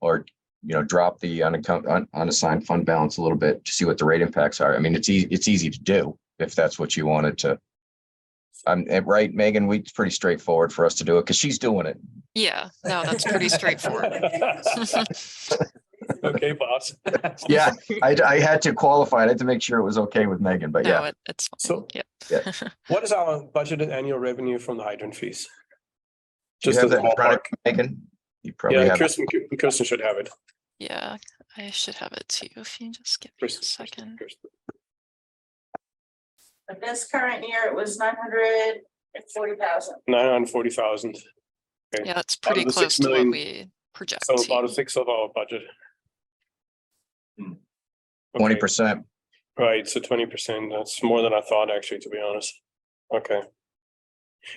or, you know, drop the unaccount, un- unassigned fund balance a little bit to see what the rate impacts are. I mean, it's ea- it's easy to do if that's what you wanted to. I'm, eh, right, Megan, we, it's pretty straightforward for us to do it because she's doing it. Yeah, no, that's pretty straightforward. Okay, boss. Yeah, I, I had to qualify. it. I had to make sure it was okay with Megan, but No, yeah. it- it's, fine. So Yep. what is our budgeted annual revenue from the hydrant fees? Do you Just have as a that in front of ballpark. you, Megan, you probably Yeah, have, it. Kirsten, Kirsten should have it. yeah, I should have it too, if you just give me a Kirsten, Kirsten, second. Kirsten. But this current year, it was nine hundred and forty thousand. Nine hundred and forty thousand. Okay. Yeah, it's pretty the close six to what million- we project. So about a yeah. sixth of our budget. Hmm. twenty Okay, percent. Right, so twenty percent, that's more than I thought, actually, to be honest. Okay.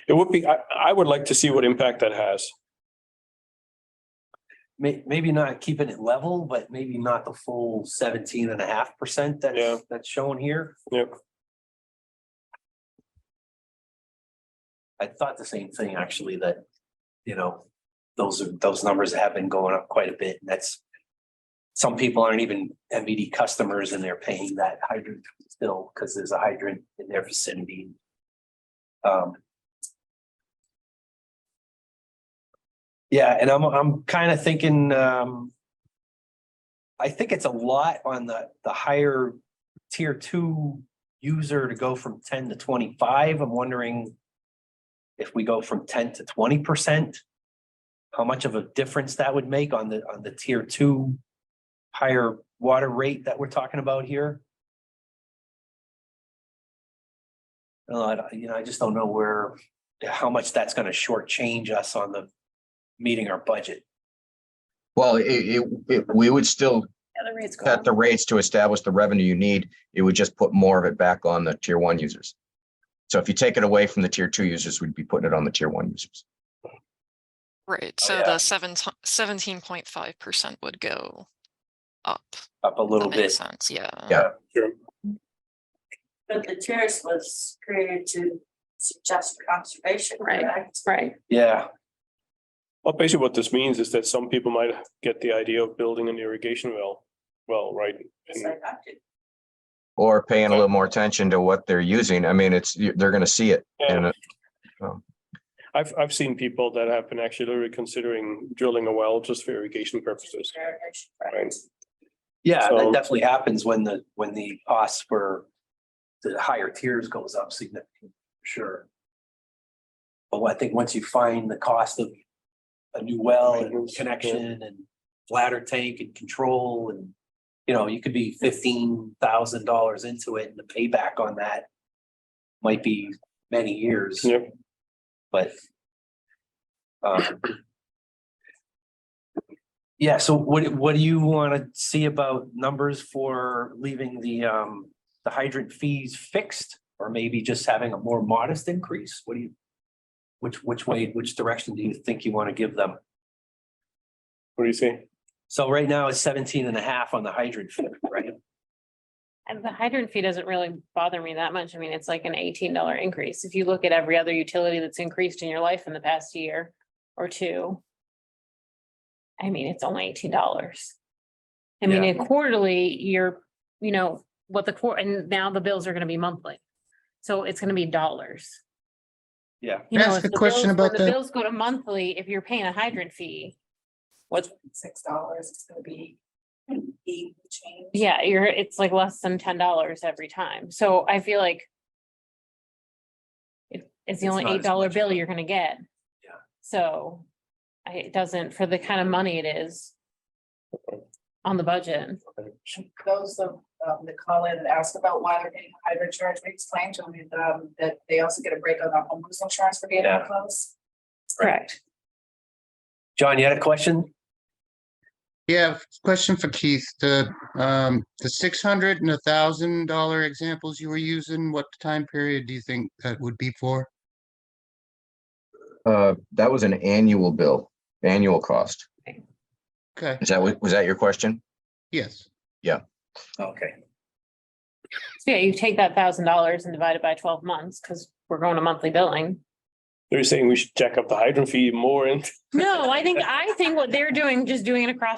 It would be, I, I would like to see what impact that has. May, maybe not keeping it level, but maybe not the full seventeen and a half percent Yeah. that's, that's shown here. Yep. I thought the same thing, actually, that, you know, those are, those numbers have been going up quite a bit, and that's. Some people aren't even MVD customers and they're paying that hydrant still, because there's a hydrant in their vicinity. Um, Yeah, and I'm, I'm kind of thinking, um. I think it's a lot on the, the higher tier two user to go from ten to twenty-five. I'm wondering. If we go from ten to twenty percent. How much of a difference that would make on the, on the tier two. Higher water rate that we're talking about here. Uh, I don't- you know, I just don't know where, how much that's gonna shortchange us on the meeting our budget. Well, it, it, it, we would still the rates go set up. the rates to establish the revenue you need. It would just put more of it back on the tier one users. So if you take it away from the tier two users, we'd be putting it on the tier one users. Right, Oh, so yeah. the seven, seventeen point five percent would go up. up a That little makes bit. sense, yeah. Yeah. But the terrace was created to suggest conservation, Right. correct? Right. Yeah, Well, basically what this means is that some people might get the idea of building an irrigation well, well, right? It's And like, I did. Or paying a little more attention to what they're using. I mean, it's, you- they're gonna see it. And and uh, I've, I've seen people that have been actually literally considering drilling a well just for irrigation purposes. Irrigation, Right. yeah, So- that definitely happens when the, when the costs for the higher tiers goes up significantly, for sure. But I think once you find the cost of a new well and Maintenance, yeah. connection and bladder tank and control and, you know, you could be fifteen thousand dollars into it and the payback on that might be many years. Yep. but. um, Yeah, so what, what do you want to see about numbers for leaving the, um, the hydrant fees fixed? Or maybe just having a more modest increase? What do you? Which, which way, which direction do you think you want to give them? What do you say? So right now it's 17 and a half on the hydrant fee, right? And the hydrant fee doesn't really bother me that much. I mean, it's like an eighteen dollar increase. If you look at every other utility that's increased in your life in the past year or two. I mean, it's only eighteen dollars. I mean, Yeah. and quarterly, you're, you know, what the quarter, and now the bills are gonna be monthly. So it's gonna be dollars. Yeah. You Can I know, ask if a the question bills- when about the that? Bills go to monthly, if you're paying a hydrant fee. What's, Six dollars, it's gonna be eight and change. yeah, you're, it's like less than ten dollars every time. So I feel like. it- It's the It's only not as eight dollar much. bill you're gonna get. Yeah. So I, it doesn't, for the kind of money it is. On the budget. Those of, um, that call in and ask about why they're getting a higher charge, we explain to them, um, that they also get a break on their homeowners insurance for being Yeah. close. Correct. John, you had a question? Yeah, question for Keith, the, um, the six hundred and a thousand dollar examples you were using, what time period do you think that would be for? uh, that was an annual bill, annual cost. Okay, Is that, what- was that your question? yes. Okay. So yeah, you take that thousand dollars and divide it by twelve months, because we're going to monthly billing. They're saying we should jack up the hydrant fee more and No, I think, I think what they're doing, just doing it across